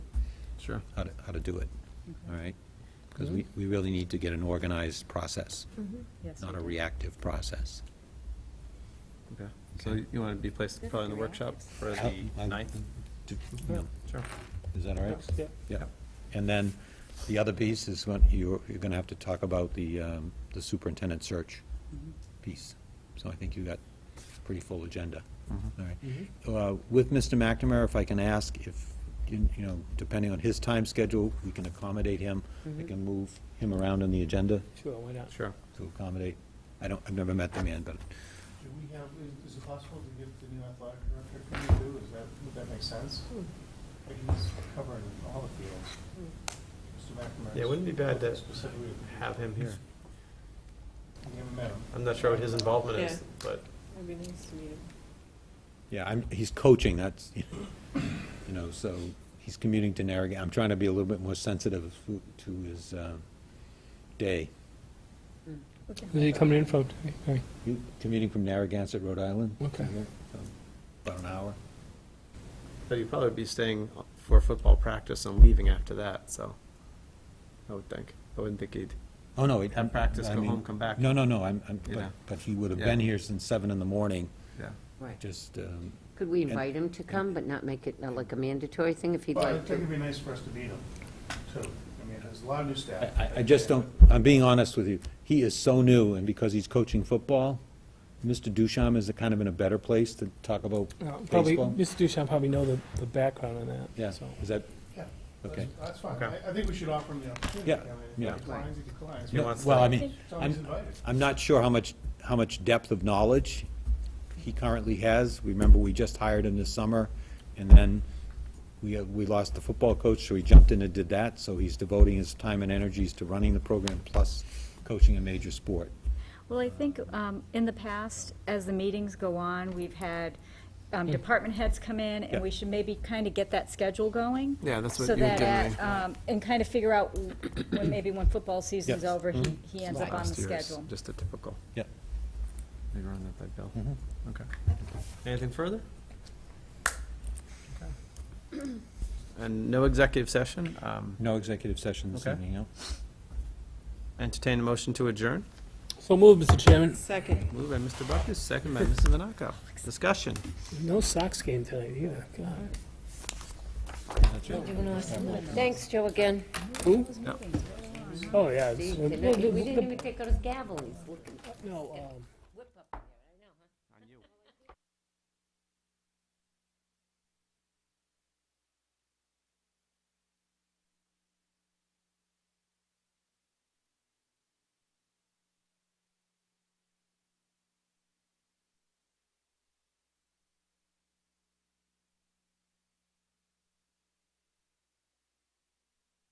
Sure. how to, how to do it, all right? Because we, we really need to get an organized process, Mm-hmm. Yes, not we a do. reactive process. Okay. So you want to be placed probably in the workshop for the I- ninth? Do- you know, Sure. Is that all right? Yeah. And then the other piece is when you're, you're going to have to talk about the, um, the superintendent search piece. So I think you got a pretty full agenda. All right. Uh, With Mr. McNamara, if I can ask if, you you know, depending on his time schedule, we can accommodate him. Mm-hmm. We can move him around on the agenda Sure, why not? Sure. to accommodate. I don't, I've never met the man, but Do we have, is- is it possible to give the new athletic director a preview, is that, would that make sense? Hmm. Like he's covering all the fields. Mr. McNamara. Yeah, it wouldn't be bad to Specifically, Have him here. we haven't met him. I'm not sure what his involvement Yeah. is, but It'd be nice to meet him. yeah, I'm, he's coaching, that's, you know, so he's commuting to Narragansett. I'm trying to be a little bit more sensitive to his uh, day. Where's he coming in from? Okay. You commuting from Narragansett, Rhode Island? Okay. So, About an hour? but he'd probably be staying for football practice and leaving after that, so I would think. I wouldn't think he'd, Oh, no. it- Have practice, I go mean- home, come back. No, no, no, I'm, I'm, You but- know. but he would have Yeah. been here since seven in the morning, yeah. Right. just, um, Could we and- invite him to come, but not make it uh, like a mandatory thing if he'd But I like think to? it'd be nice for us to meet him, too. I mean, there's a lot of new I, staff. I- I just don't, I'm being honest with you. He is so new, and because he's coaching football, Mr. Ducharme is kind of in a better place to talk about Uh, Probably, baseball. Mr. Duchamp probably know the, the background on that. Yeah, so. is that, Yeah, okay. that's- That's fine, Okay. I, I think we should offer him the opportunity. Yeah, I mean, if yeah. He declines, he declines. He No, wants Well, to- I mean, So he's I'm, invited. I'm not sure how much, how much depth of knowledge he currently has. Remember, we just hired him this summer, and then we, uh, we lost the football coach, so he jumped in and did that, so he's devoting his time and energies to running the program, plus coaching a major sport. Well, I think um, in the past, as the meetings go on, we've had um, department heads come in, Yeah. and we should maybe kind of get that schedule going. Yeah, that's what So you were that doing. at, um, And kind of figure out when, maybe when football season's Yes. over, he he ends up on the Last year's schedule. Just a typical. Yep. Maybe run that by Bill. Okay. Anything further? Okay. And no executive session? Um, No executive session this Okay. evening, no? Entertain a motion to adjourn? So move, Mr. Chairman. Second. Moved by Mr. Buckus, second by Mrs. Monaco. Discussion. No Sox game tonight either. God. Thanks, Joe, again. Oh, yeah. it's- We didn't even take out his gavel, he's looking. No, um,